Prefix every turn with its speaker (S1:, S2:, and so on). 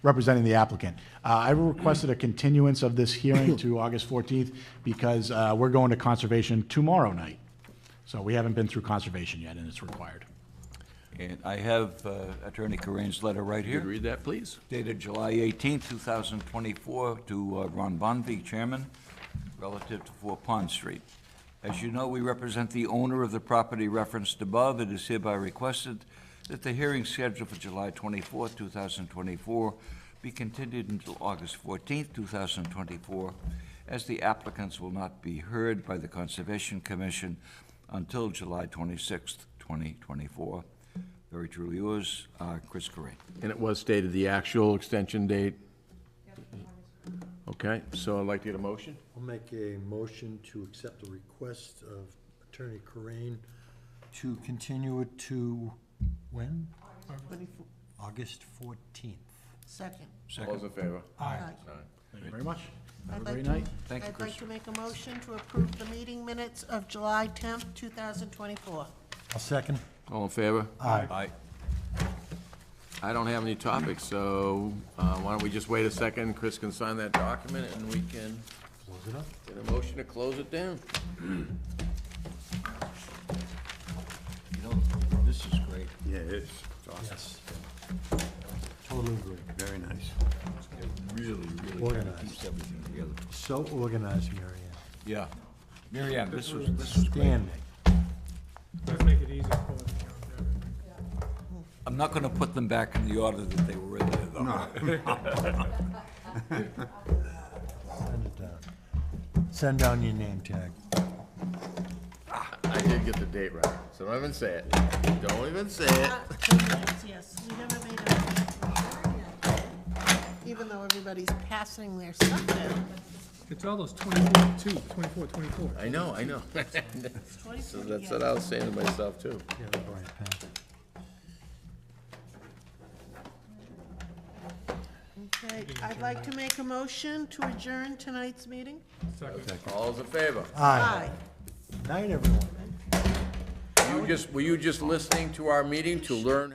S1: representing the applicant. Uh, I requested a continuance of this hearing to August 14th because uh, we're going to conservation tomorrow night. So we haven't been through conservation yet, and it's required.
S2: And I have uh, Attorney Corain's letter right
S3: Could you
S2: here,
S3: read that, please?
S2: dated July 18, 2024, to uh, Ron Bonvy, Chairman, relative to 4 Pond Street. As you know, we represent the owner of the property referenced above. It is hereby requested that the hearing scheduled for July 24, 2024, be continued until August 14, 2024, as the applicants will not be heard by the Conservation Commission until July 26, 2024. Very truly yours, uh, Chris Correa.
S3: And it was stated the actual extension date? Okay, so I'd like to get a motion.
S4: I'll make a motion to accept the request of Attorney Corain to continue it to when?
S5: Twenty-four,
S4: August fourteenth.
S5: second.
S3: All those in favor?
S5: Aye.
S1: Thank you very much. Have
S5: I'd
S1: a
S5: like
S1: great
S5: to-
S1: night.
S2: Thank you,
S5: I'd like to make a motion to approve the meeting minutes of July tenth, two thousand twenty-four.
S4: I'll second.
S3: All in favor?
S4: Aye.
S2: Aye.
S3: I don't have any topics, so uh, why don't we just wait a second? Chris can sign that document, and we can
S4: Close it up.
S3: get a motion to close it down.
S2: You know, this is great.
S6: Yeah, it's,
S4: Yes. Totally agree.
S6: very nice.
S2: It really, really kind of
S4: Organized.
S2: keeps everything together.
S4: So organized, Mary Ann.
S2: Yeah. Mary Ann, this was, this was great.
S4: Standing.
S7: Let's make it easy for them. you know,
S2: I'm not going to put them back in the order that they were in there, though.
S4: Send it down. Send down your name tag.
S3: I did get the date right, so don't even say it. Don't even say it.
S5: Ah, two minutes, Yes, we never made a. Even though everybody's passing their stuff down.
S7: It's all those 24, 2, 24, 24.
S3: I know, I know.
S5: It's 24,
S3: So that's
S5: yeah.
S3: what I was saying to myself, too.
S4: Yeah, the bright pen.
S5: Okay, I'd like to make a motion to adjourn tonight's meeting.
S7: Second.
S3: All's in favor?
S4: Aye.
S5: Aye.
S4: Night, everyone.
S3: You just, were you just listening to our meeting to learn